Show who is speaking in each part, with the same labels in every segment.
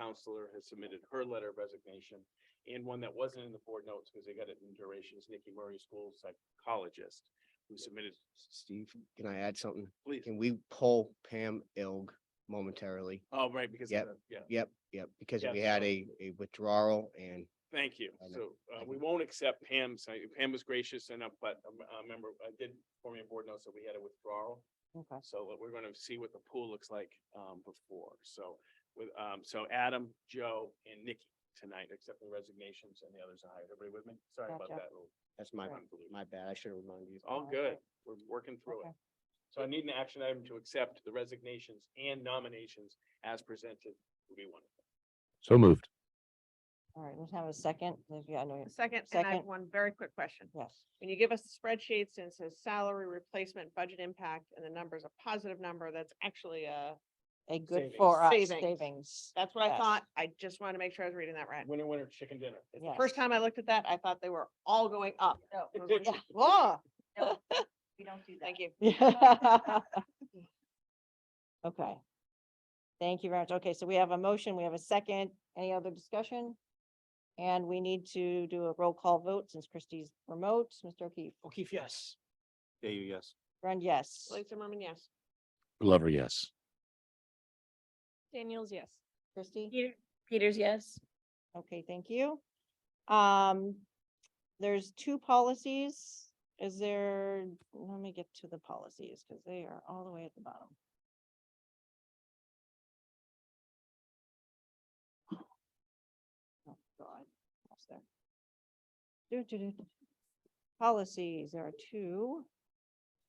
Speaker 1: counselor has submitted her letter of resignation and one that wasn't in the board notes because they got it in durations, Nikki Murray, school psychologist, who submitted,
Speaker 2: Steve, can I add something?
Speaker 1: please.
Speaker 2: Can we pull Pam Ilg momentarily?
Speaker 1: Oh, right, because, of
Speaker 2: Yep.
Speaker 1: the- yeah,
Speaker 2: Yep, yep, because
Speaker 1: Yeah,
Speaker 2: we had
Speaker 1: so-
Speaker 2: a, a withdrawal and
Speaker 1: thank you.
Speaker 2: I
Speaker 1: So
Speaker 2: know.
Speaker 1: uh, we won't accept Pam's, I- Pam was gracious enough, but um, I remember I did form your board notes that we had a withdrawal.
Speaker 3: Okay.
Speaker 1: So uh, we're gonna see what the pool looks like um before, so with um, so Adam, Joe and Nikki tonight accepting resignations and the others are hired. Everybody with me? Sorry about
Speaker 3: Gotcha.
Speaker 1: that. little
Speaker 2: that's my,
Speaker 1: convolution.
Speaker 2: my bad. I should have reminded you.
Speaker 1: All
Speaker 3: Okay.
Speaker 1: good. We're working through it.
Speaker 3: Okay.
Speaker 1: So I need an action item to accept the resignations and nominations as presented would be one.
Speaker 4: So moved.
Speaker 3: All right, let's have a second. Liz, yeah, I know you-
Speaker 5: A Second, and I have
Speaker 3: Second.
Speaker 5: one very quick question.
Speaker 3: Yes,
Speaker 5: When you give us the spreadsheets and it says salary replacement, budget impact, and the number's a positive number, that's actually a,
Speaker 3: a good
Speaker 1: Savings.
Speaker 3: for us
Speaker 5: Savings.
Speaker 3: savings.
Speaker 5: that's what I
Speaker 3: Yes.
Speaker 5: thought. I just wanted to make sure I was reading that right.
Speaker 1: Winner, winner, chicken dinner.
Speaker 5: It's the First
Speaker 3: Yes.
Speaker 5: time I looked at that, I thought they were all going up.
Speaker 6: No,
Speaker 5: I was like,
Speaker 3: Yeah.
Speaker 5: Whoa,
Speaker 6: we don't do that.
Speaker 5: thank you.
Speaker 3: Okay. Thank you very much. Okay, so we have a motion, we have a second. Any other discussion? And we need to do a roll call vote since Christie's remote. Mr. O'Keefe,
Speaker 1: O'Keefe, yes. There you, yes.
Speaker 3: Run, yes.
Speaker 5: Lisa Merman, yes.
Speaker 4: Glover, yes.
Speaker 6: Daniels, yes.
Speaker 3: Christie?
Speaker 6: Peters, yes.
Speaker 3: Okay, thank you. Um, there's two policies. Is there, let me get to the policies because they are all the way at the bottom. Oh, God, almost there. Do, do, do. Policies, there are two.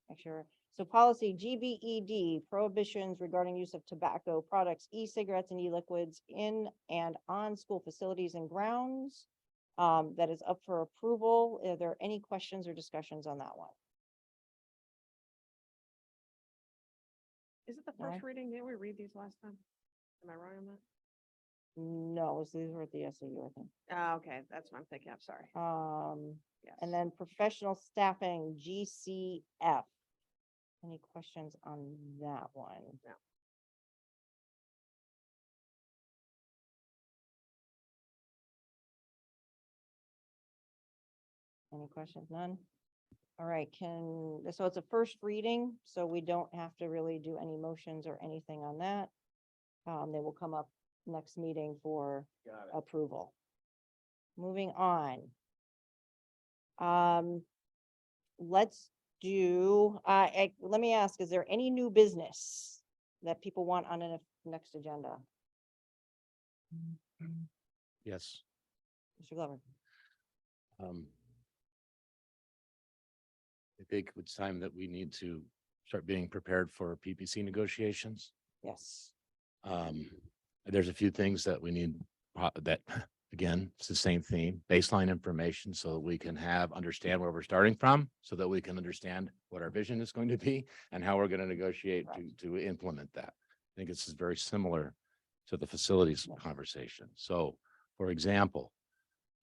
Speaker 3: Make sure. So policy GBED prohibitions regarding use of tobacco products, e-cigarettes and e-liquids in and on school facilities and grounds. Um, that is up for approval. Are there any questions or discussions on that one?
Speaker 5: Is it the
Speaker 3: No.
Speaker 5: first reading? Didn't we read these last time? Am I wrong on that?
Speaker 3: No, so these were at the SAU, I think.
Speaker 5: Ah, okay, that's what I'm thinking. I'm sorry.
Speaker 3: Um,
Speaker 5: Yes.
Speaker 3: and then professional staffing, GCF. Any questions on that one?
Speaker 5: No.
Speaker 3: Any questions? None? All right, can, so it's a first reading, so we don't have to really do any motions or anything on that. Um, they will come up next meeting for
Speaker 1: Got it.
Speaker 3: approval. Moving on. Um, let's do, uh, I- let me ask, is there any new business that people want on the next agenda?
Speaker 4: Yes.
Speaker 3: Mr. Glover?
Speaker 4: Um. I think it's time that we need to start being prepared for PPC negotiations.
Speaker 3: Yes.
Speaker 4: Um, there's a few things that we need, uh, that, again, it's the same theme, baseline information so that we can have, understand where we're starting from, so that we can understand what our vision is going to be and how we're going to negotiate to, to implement that. I think this is very similar to the facilities
Speaker 3: Yeah.
Speaker 4: conversation. So, for example,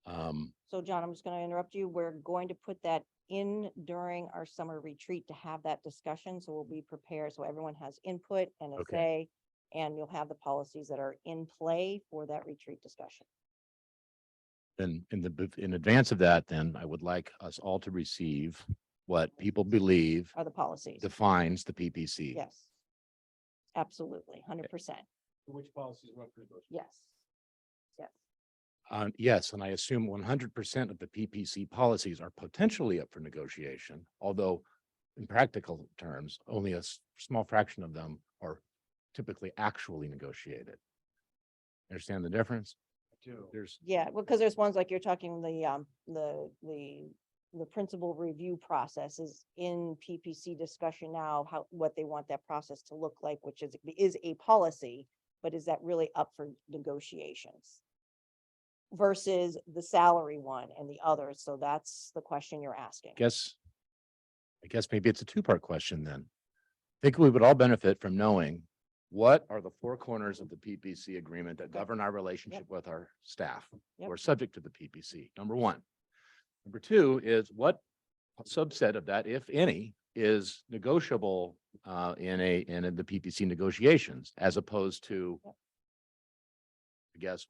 Speaker 4: um,
Speaker 3: So John, I'm just going to interrupt you. We're going to put that in during our summer retreat to have that discussion. So we'll be prepared. So everyone has input and a
Speaker 4: Okay.
Speaker 3: say. And you'll have the policies that are in play for that retreat discussion.
Speaker 4: then in the, bef- in advance of that, then I would like us all to receive what people believe
Speaker 3: Are the policies?
Speaker 4: defines the PPC.
Speaker 3: Yes. Absolutely, hundred percent.
Speaker 1: Which policies went through those?
Speaker 3: Yes. Yes.
Speaker 4: Uh, yes, and I assume one hundred percent of the PPC policies are potentially up for negotiation, although in practical terms, only a s- small fraction of them are typically actually negotiated. Understand the difference?
Speaker 1: Two.
Speaker 4: There's,
Speaker 3: Yeah, well, because there's ones like you're talking the, um, the, the, the principal review process is in PPC discussion now, how, what they want that process to look like, which is, is a policy, but is that really up for negotiations? Versus the salary one and the other. So that's the question you're asking.
Speaker 4: guess, I guess maybe it's a two-part question then. I think we would all benefit from knowing what are the four corners of the PPC agreement that govern our relationship with our staff?
Speaker 3: Yep.
Speaker 4: who are subject to the PPC, number one. Number two is what subset of that, if any, is negotiable uh in a, in the PPC negotiations as opposed to guess